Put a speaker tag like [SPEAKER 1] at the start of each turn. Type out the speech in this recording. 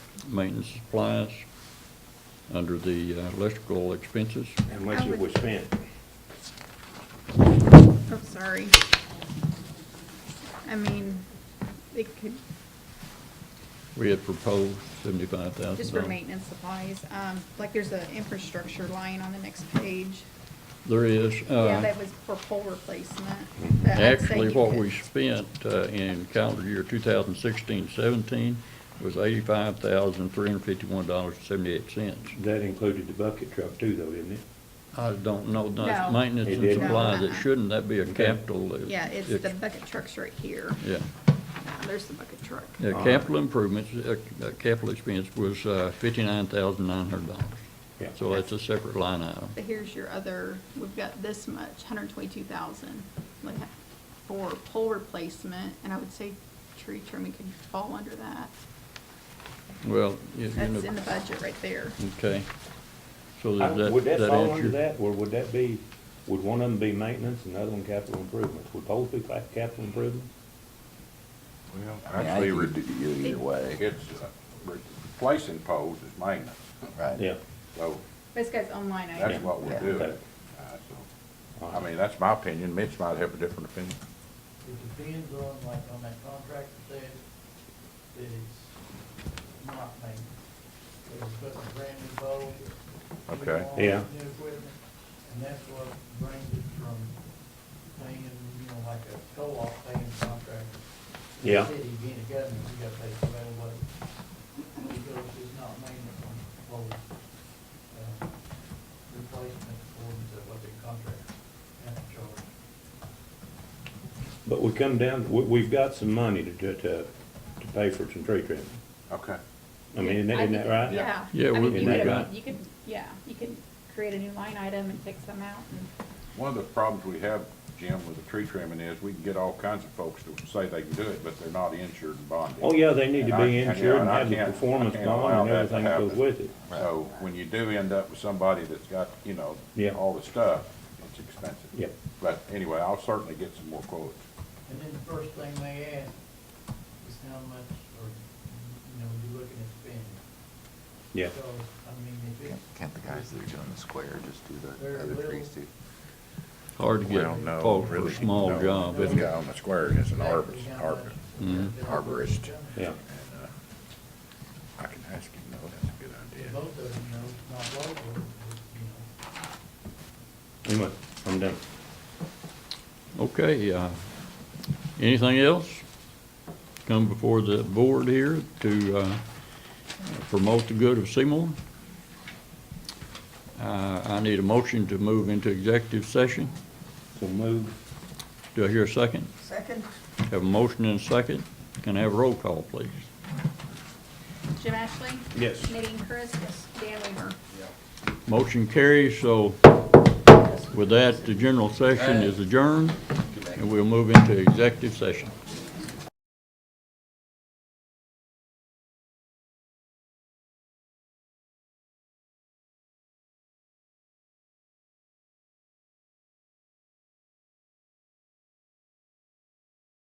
[SPEAKER 1] maintenance supplies, under the uh, electrical expenses.
[SPEAKER 2] How much it was spent?
[SPEAKER 3] I'm Oh, sorry. I mean, it could,
[SPEAKER 1] We had proposed seventy-five thousand.
[SPEAKER 3] just for maintenance supplies, um, like there's an infrastructure line on the next page.
[SPEAKER 1] There is. uh,
[SPEAKER 3] Yeah, that was for pole replacement. but I'd say
[SPEAKER 1] Actually,
[SPEAKER 3] you
[SPEAKER 1] what
[SPEAKER 3] could-
[SPEAKER 1] we spent uh, in calendar year 2016-17 was $85,351.78.
[SPEAKER 2] That included the bucket truck too, though, didn't it?
[SPEAKER 1] I don't know,
[SPEAKER 3] No.
[SPEAKER 1] that's maintenance
[SPEAKER 2] It
[SPEAKER 1] and
[SPEAKER 2] didn't?
[SPEAKER 1] supplies,
[SPEAKER 3] No,
[SPEAKER 1] it
[SPEAKER 3] uh-uh.
[SPEAKER 1] shouldn't, that be a
[SPEAKER 2] Okay.
[SPEAKER 1] capital. uh,
[SPEAKER 3] Yeah, it's
[SPEAKER 1] ex-
[SPEAKER 3] the bucket trucks right here.
[SPEAKER 1] Yeah,
[SPEAKER 3] Yeah, There's the bucket truck.
[SPEAKER 1] Yeah,
[SPEAKER 2] right.
[SPEAKER 1] capital improvements, uh, uh, capital expense was uh, $59,900.
[SPEAKER 2] Yeah.
[SPEAKER 1] So that's a separate line item.
[SPEAKER 3] But here's your other, we've got this much, hundred twenty-two thousand, like, for pole replacement, and I would say tree trimming could fall under that.
[SPEAKER 1] Well, you you
[SPEAKER 3] That's
[SPEAKER 1] know,
[SPEAKER 3] in the budget right there.
[SPEAKER 1] okay. So
[SPEAKER 2] I-
[SPEAKER 1] does that.
[SPEAKER 2] Uh, Would that fall under
[SPEAKER 1] answer-
[SPEAKER 2] that, or would that be, would one of them be maintenance and the other one capital improvements? Would both be ca- capital improvement?
[SPEAKER 4] Well,
[SPEAKER 5] Yeah,
[SPEAKER 4] actually,
[SPEAKER 5] you could
[SPEAKER 4] re-
[SPEAKER 5] do it Either way,
[SPEAKER 4] it's uh, replacing poles is maintenance,
[SPEAKER 5] right.
[SPEAKER 2] Yeah,
[SPEAKER 4] so
[SPEAKER 3] This guy's online, I
[SPEAKER 4] that's
[SPEAKER 3] item.
[SPEAKER 4] what we're
[SPEAKER 5] Yeah.
[SPEAKER 4] doing.
[SPEAKER 2] Okay.
[SPEAKER 4] Uh, so, I mean, that's my opinion, Mitch might have a different opinion.
[SPEAKER 6] It depends on, like, on that contractor said, that it's not maintenance. It was putting a brand new bowl. new
[SPEAKER 4] Okay.
[SPEAKER 6] wall,
[SPEAKER 2] Yeah.
[SPEAKER 6] New equipment, and that's what brings it from paying, you know, like a co-op paying contractor. The
[SPEAKER 2] Yeah.
[SPEAKER 6] City being a government, you gotta pay for that, but because it's not maintenance on both, uh, replacement according to what the contractor has to charge.
[SPEAKER 2] but we come down, we, we've got some money to, to, to to pay for some tree trimming.
[SPEAKER 4] Okay.
[SPEAKER 2] I mean, isn't that- isn't that right?
[SPEAKER 3] Yeah.
[SPEAKER 1] Yeah,
[SPEAKER 3] I
[SPEAKER 1] we-
[SPEAKER 3] mean, you
[SPEAKER 2] we
[SPEAKER 3] could-
[SPEAKER 1] got-
[SPEAKER 3] You could, yeah, you could create a new line item and pick some out and,
[SPEAKER 4] One of the problems we have, Jim, with the tree trimming is we can get all kinds of folks to say they can do it, but they're not insured and bonded.
[SPEAKER 2] Oh, yeah, they need
[SPEAKER 4] And
[SPEAKER 2] to
[SPEAKER 4] I-
[SPEAKER 2] be
[SPEAKER 4] and, you know,
[SPEAKER 2] insured and
[SPEAKER 4] I
[SPEAKER 2] have the
[SPEAKER 4] can't- I
[SPEAKER 2] performance
[SPEAKER 4] can't allow
[SPEAKER 2] bond and
[SPEAKER 4] that to
[SPEAKER 2] everything that goes
[SPEAKER 4] happen.
[SPEAKER 2] with it.
[SPEAKER 4] So when you do end up with somebody that's got, you know,
[SPEAKER 2] Yeah.
[SPEAKER 4] all the stuff, it's expensive.
[SPEAKER 2] Yeah.
[SPEAKER 4] But anyway, I'll certainly get some more quotes.
[SPEAKER 6] And then the first thing they ask is how much, or, you know, you looking at spending.
[SPEAKER 2] Yeah,
[SPEAKER 6] So, I mean, if it's.
[SPEAKER 5] Can't- Can't the guys that are doing the square just do
[SPEAKER 6] Very
[SPEAKER 5] the other
[SPEAKER 6] little.
[SPEAKER 5] trees too?
[SPEAKER 1] Hard to get
[SPEAKER 4] Well, no,
[SPEAKER 1] folks for
[SPEAKER 4] really,
[SPEAKER 1] a small
[SPEAKER 4] no.
[SPEAKER 1] job,
[SPEAKER 4] This
[SPEAKER 1] isn't it?
[SPEAKER 4] guy on the square is an
[SPEAKER 6] Exactly
[SPEAKER 4] arborist,
[SPEAKER 6] how
[SPEAKER 4] arbor,
[SPEAKER 6] much.
[SPEAKER 5] Mhm. Arborist.
[SPEAKER 2] Mm-hmm. yeah.
[SPEAKER 4] and, uh, I can ask him, though, that's a good idea.
[SPEAKER 6] Both of them, you know, it's not local, it's, you know.
[SPEAKER 2] Anyway, I'm done.
[SPEAKER 1] Okay, uh, anything else? Come before the board here to uh, promote the good of Seymour. Uh, I need a motion to move into executive session.
[SPEAKER 2] So move.
[SPEAKER 1] Do I hear a second? Second. Have a motion and a second. Can I have a roll call, please?
[SPEAKER 3] Jim Ashley?
[SPEAKER 2] Yes.
[SPEAKER 3] Nadine Chris? Dan Weaver?
[SPEAKER 1] Motion carries, so with that, the general session is adjourned, and we'll move into executive session.